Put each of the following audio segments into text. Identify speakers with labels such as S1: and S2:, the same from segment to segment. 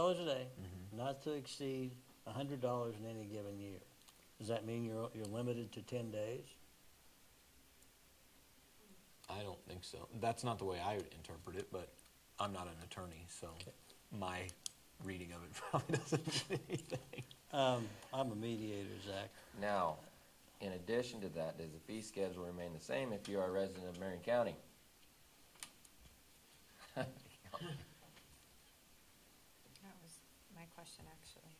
S1: dollars a day, not to exceed a hundred dollars in any given year. Does that mean you're, you're limited to ten days?
S2: I don't think so. That's not the way I would interpret it, but I'm not an attorney, so my reading of it probably doesn't mean anything.
S1: Um, I'm a mediator, Zach.
S3: Now, in addition to that, does the fee schedule remain the same if you are a resident of Marion County?
S4: That was my question, actually.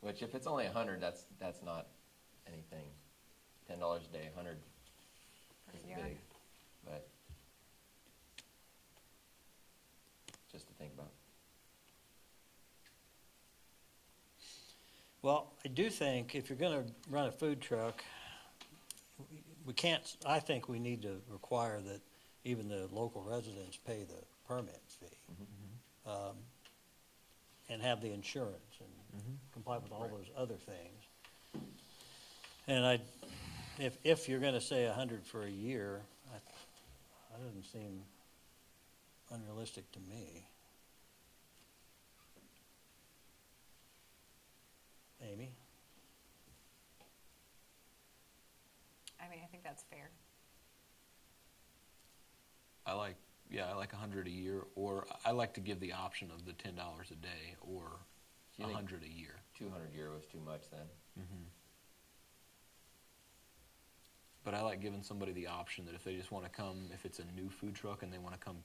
S3: Which if it's only a hundred, that's, that's not anything. Ten dollars a day, a hundred
S4: for
S3: is
S4: the
S3: big,
S4: year.
S3: but just to think about.
S1: Well, I do think if you're gonna run a food truck, we- we can't, I think we need to require that even the local residents pay the permit fee. Um, And have the insurance and comply with all those other things. And I, if, if you're gonna say a hundred for a year, I, that doesn't seem unrealistic to me. Amy?
S4: I mean, I think that's fair.
S2: I like, yeah, I like a hundred a year, or I like to give the option of the ten dollars a day or a
S3: Do you think-
S2: hundred a year.
S3: Two hundred euro is too much then.
S2: But I like giving somebody the option that if they just want to come, if it's a new food truck and they want to come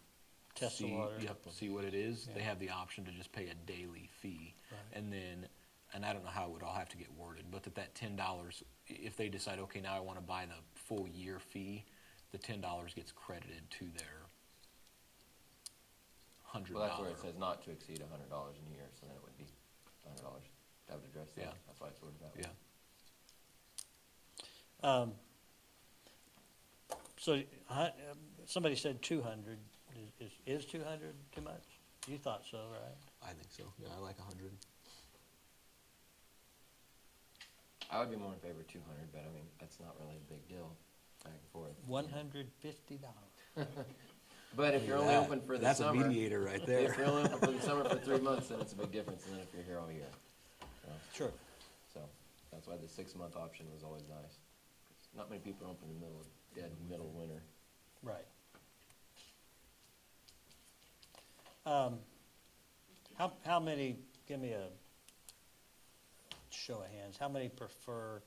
S1: Test the
S2: see,
S1: water.
S2: yep, see what it is, they
S1: Yeah.
S2: have the option to just pay a daily fee.
S1: Right.
S2: And then, and I don't know how it would all have to get worded, but that that ten dollars, if they decide, okay, now I want to buy the full year fee, the ten dollars gets credited to their hundred
S3: Well,
S2: dollar.
S3: that's where it says not to exceed a hundred dollars in a year, so then it would be a hundred dollars. That would address
S2: Yeah.
S3: that. That's why it's worded that way.
S2: Yeah,
S1: Um, So, uh, somebody said two hundred, is, is two hundred too much? You thought so, right?
S2: I think so. Yeah, I like a hundred.
S3: I would be more in favor of two hundred, but I mean, that's not really a big deal, back and forth.
S1: One hundred fifty dollars.
S3: But if you're only open for the
S2: That's
S3: summer.
S2: a mediator right
S3: If
S2: there.
S3: you're only open for the summer for three months, then it's a big difference than if you're here all year. you know?
S1: Sure.
S3: So, that's why the six-month option was always nice. Not many people are open in the middle, of dead middle of winter.
S1: Right. Um, How, how many, give me a show of hands, how many prefer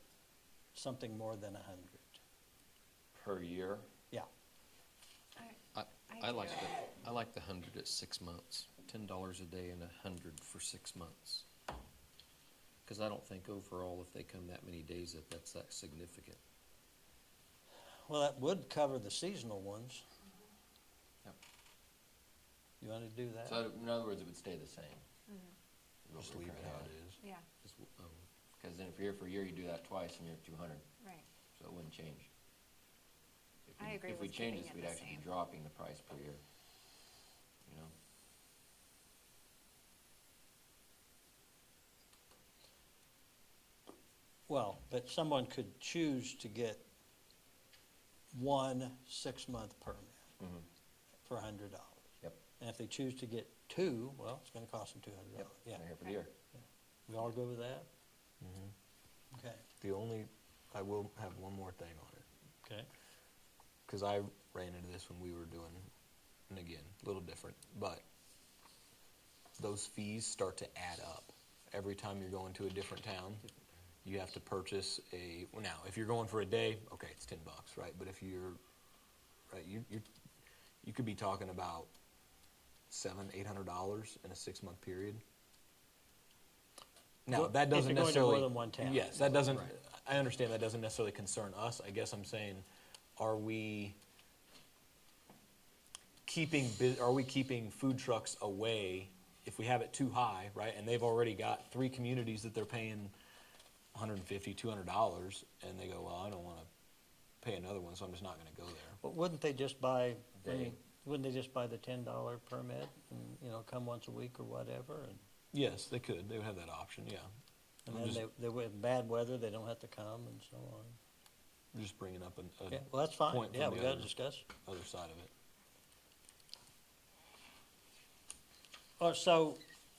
S1: something more than a hundred?
S3: Per year?
S1: Yeah,
S5: I,
S4: I
S5: I like
S4: do.
S5: the, I like the hundred at six months, ten dollars a day and a hundred for six months. Cause I don't think overall, if they come that many days, that that's that significant.
S1: well, that would cover the seasonal ones.
S3: Yep.
S1: You wanna do that?
S3: So, in other words, it would stay the same. is what
S2: Just
S3: we're
S2: leave it
S3: currently
S2: how
S3: at.
S2: it is.
S4: Yeah,
S5: Is w- um,
S3: Cause then if you're here for a year, you do that twice and you're at two hundred,
S4: right.
S3: so it wouldn't change. If
S4: I
S3: we-
S4: agree
S3: If we
S4: with
S3: change
S4: keeping
S3: this,
S4: it
S3: we'd
S4: the
S3: actually be
S4: same.
S3: dropping the price per year, you know?
S1: Well, but someone could choose to get one six-month permit
S2: Mm-hmm.
S3: Mhm.
S1: for a hundred dollars.
S3: Yep.
S1: And if they choose to get two, well, it's gonna cost them two hundred
S3: Yep,
S1: dollars. Yeah,
S3: they're here for the year.
S1: we all go with that?
S2: Mm-hmm.
S1: Okay,
S2: The only, I will have one more thing on it.
S1: okay.
S2: because I ran into this when we were doing, and again, a little different, but those fees start to add up. Every time you're going to a different town, you have to purchase a, well, now, if you're going for a day, okay, it's ten bucks, right? But if you're, right, you, you, you could be talking about seven, eight hundred dollars in a six-month period. Now,
S1: Well,
S2: that
S1: if
S2: doesn't
S1: you're going to more
S2: necessarily.
S1: than one town.
S2: Yes, that doesn't,
S5: Right.
S2: I understand that doesn't necessarily concern us. I guess I'm saying, are we keeping, bu- are we keeping food trucks away if we have it too high, right? And they've already got three communities that they're paying 150 $200, and they go, well, I don't want to pay another one, so I'm just not going to go there.
S1: But wouldn't they just buy, I
S3: They-
S1: mean, wouldn't they just buy the ten-dollar permit and, you know, come once a week or whatever? and-
S2: Yes, they could. They would have that option, yeah.
S1: And
S2: I'm
S1: then
S2: just-
S1: they, they, with bad weather, they don't have to come and so on.
S2: Just bringing up an- a,
S1: Yeah, well, that's fine.
S2: Point
S1: Yeah,
S2: from
S1: we
S2: the
S1: gotta
S2: other-
S1: discuss.
S2: other side of it.
S1: Oh, so